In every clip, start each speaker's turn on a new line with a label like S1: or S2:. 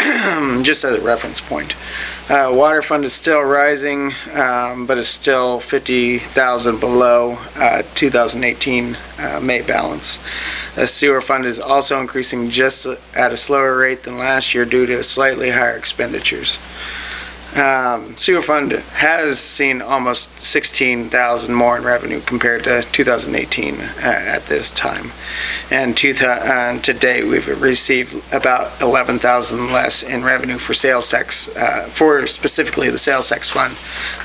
S1: um, just as a reference point. Uh, Water fund is still rising, um, but is still 50,000 below uh, 2018 uh, May balance. The sewer fund is also increasing just at a slower rate than last year due to slightly higher expenditures. Um, Sewer fund has seen almost 16,000 more in revenue compared to 2018 a- uh, at this time. And to, tha- uh, to date, we've received about 11,000 less in revenue for sales tax, uh, for specifically the sales tax fund,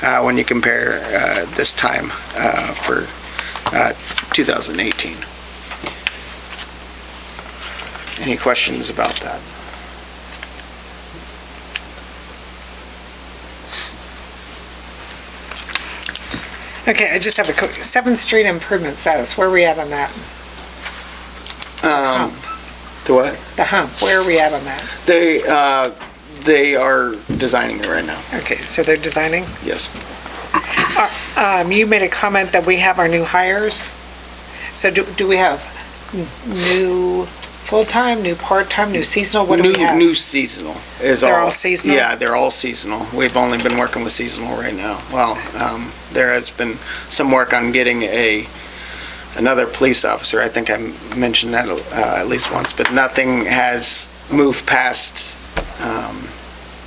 S1: uh, when you compare uh, this time uh, for uh, 2018. Any questions about that?
S2: Okay, I just have a quick, Seventh Street improvement status, where are we at on that?
S1: Um, To what?
S2: The hump, where are we at on that?
S1: They, uh, they are designing it right now,
S2: Okay, so they're designing.
S1: yes.
S2: Um, you made a comment that we have our new hires. So do, do we have n- new full-time, new part-time, new seasonal, what do
S1: New,
S2: we have?
S1: new seasonal is all.
S2: They're all seasonal?
S1: Yeah, they're all seasonal. We've only been working with seasonal right now. Well, um, there has been some work on getting a, another police officer. I think I mentioned that, uh, at least once, but nothing has moved past, um,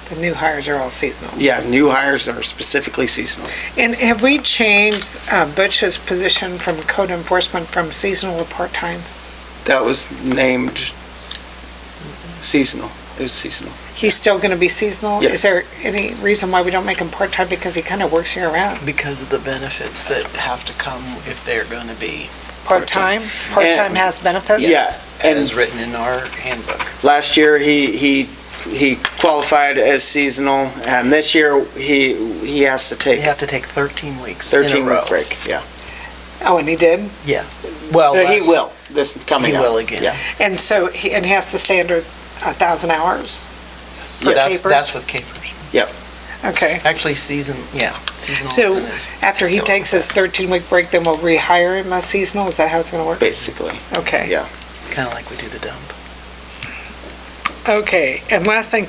S2: The new hires are all seasonal.
S1: yeah, new hires are specifically seasonal.
S2: And have we changed uh, Butch's position from code enforcement from seasonal to part-time?
S1: That was named seasonal. It was seasonal.
S2: He's still gonna be seasonal?
S1: Yes.
S2: Is there any reason why we don't make him part-time because he kinda works year-round?
S3: because of the benefits that have to come if they're going to be,
S2: Part-time?
S1: Part-time.
S2: Part-time has benefits?
S3: Yes.
S1: Yeah, and-
S3: as written in our handbook.
S1: Last year, he, he, he qualified as seasonal, and this year, he, he has to
S3: They
S1: take
S3: have to take 13 weeks in a row.
S1: 13-week break, yeah.
S2: Oh, and he did?
S3: Well,
S1: Uh, He
S3: last-
S1: will, this coming
S3: Oh, He
S1: up.
S3: will again.
S1: Yeah,
S2: And so, he and he has to stay under a thousand hours?
S3: so
S2: for
S3: that's,
S2: capers?
S3: that's with capers.
S2: Okay.
S3: Actually, season, yeah. seasonal
S2: So,
S3: is-
S2: After he takes his thirteen-week break, then we'll rehire him as seasonal? Is that how it's gonna work?
S1: basically.
S2: Okay.
S1: Yeah.
S3: Kind of like we do the dump.
S2: Okay. And last thing,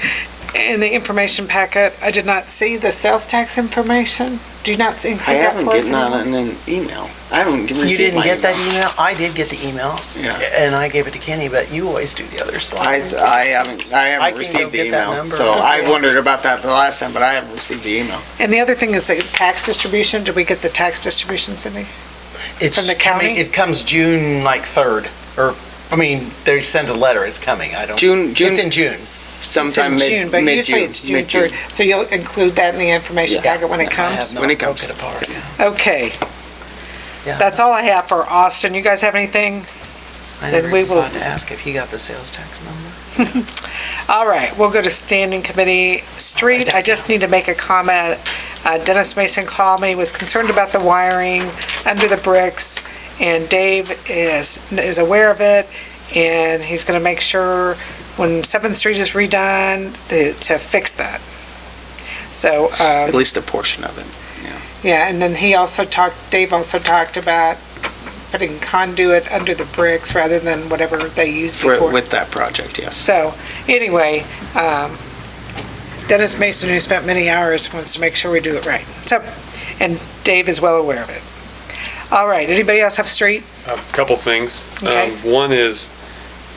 S2: in the information packet, I did not see the sales tax information. Do you not see-
S1: I
S2: include that
S1: haven't
S2: for us?
S1: gotten on an email. I haven't
S3: You
S1: received
S3: didn't
S1: my
S3: get that
S1: email.
S3: email? I did get the email,
S1: Yeah.
S3: and I gave it to Kenny, but you always do the other, so.
S1: I, I haven't, I
S3: I
S1: haven't
S3: can go
S1: received the
S3: get that
S1: email,
S3: number.
S1: so I
S3: Okay.
S1: wondered about that the last time, but I haven't received the email.
S2: And the other thing is the tax distribution. Did we get the tax distribution, Cindy?
S3: It's
S2: From the
S3: coming-
S2: county?
S3: It comes June like 3rd, or, I mean, they send a letter, it's coming, I don't.
S1: June,
S3: It's
S1: June,
S3: in June.
S1: sometime
S2: It's
S1: mid,
S2: in June, but usually
S1: mid-June,
S2: it's June
S1: mid-June.
S2: 3rd. So you'll include that in the information
S3: Yeah.
S2: packet when it
S3: I have
S2: comes?
S3: not
S1: When it
S3: broke
S1: comes.
S3: apart.
S2: Okay.
S3: Yeah.
S2: That's all I have for Austin. You guys have anything?
S3: I
S2: Then
S3: never
S2: we
S3: even
S2: will-
S3: thought to ask if he got the sales tax number.
S2: All right, we'll go to standing committee. Street, I just need to make a comment. Uh, Dennis Mason called me, was concerned about the wiring under the bricks, and Dave is, is aware of it, and he's gonna make sure when Seventh Street is redone, the- to fix that. So, um,
S1: At least a portion of it.
S2: yeah, and then he also talked, Dave also talked about putting conduit under the bricks rather than whatever they used
S1: For,
S2: before.
S1: with that project, yes.
S2: So, anyway, um, Dennis Mason, who spent many hours, wants to make sure we do it right. So, and Dave is well aware of it. All right, anybody else have street?
S4: A couple things.
S2: Okay.
S4: Um, One is,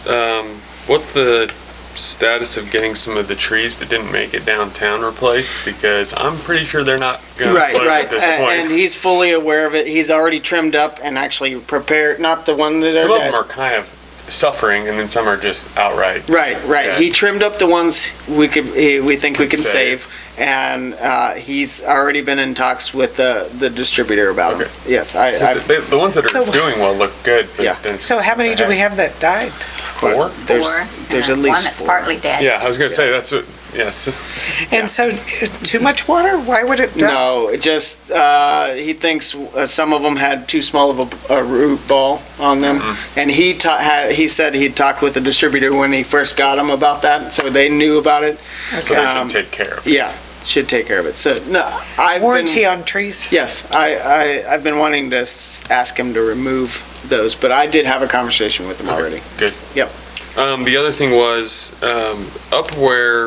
S4: um, what's the status of getting some of the trees that didn't make it downtown replaced? Because I'm pretty sure they're not gonna
S1: Right,
S4: plant
S1: right.
S4: at this
S1: A- And
S4: point.
S1: he's fully aware of it. He's already trimmed up and actually prepared, not the one that
S4: Some
S1: are
S4: of them are
S1: dead.
S4: kind of suffering and then some are just outright.
S1: Right, right.
S4: Yeah.
S1: He trimmed up the ones we could, eh, we think we
S4: Could
S1: can save.
S4: save.
S1: And, uh, he's already been in talks with the, the distributor about it.
S4: Okay.
S1: Yes, I,
S4: Is it-
S1: I,
S4: they- The ones that
S2: So-
S4: are doing well look good,
S1: Yeah.
S4: but then.
S2: So how many do we have that died?
S4: Four?
S1: there's,
S5: Four,
S1: there's at
S5: and
S1: least
S5: One that's
S1: four.
S5: partly dead.
S4: Yeah, I was gonna say, that's, what- yes.
S2: And so, uh, too much water? Why would it? die?
S1: No, it just, uh, he thinks uh, some of them had too small of a, a root ball on them.
S4: Mm-hmm.
S1: And he ta- had, he said he'd talked with the distributor when he first got them about that, so they knew about it.
S4: So they
S1: Um,
S4: should take care of it.
S1: Yeah, should take care of it. So, no, I've
S2: Warranty
S1: been,
S2: on trees?
S1: yes, I, I, I've been wanting to s- ask him to remove those, but I did have a conversation with him already.
S4: Good.
S1: Yep.
S4: Um, the other thing was, um, up where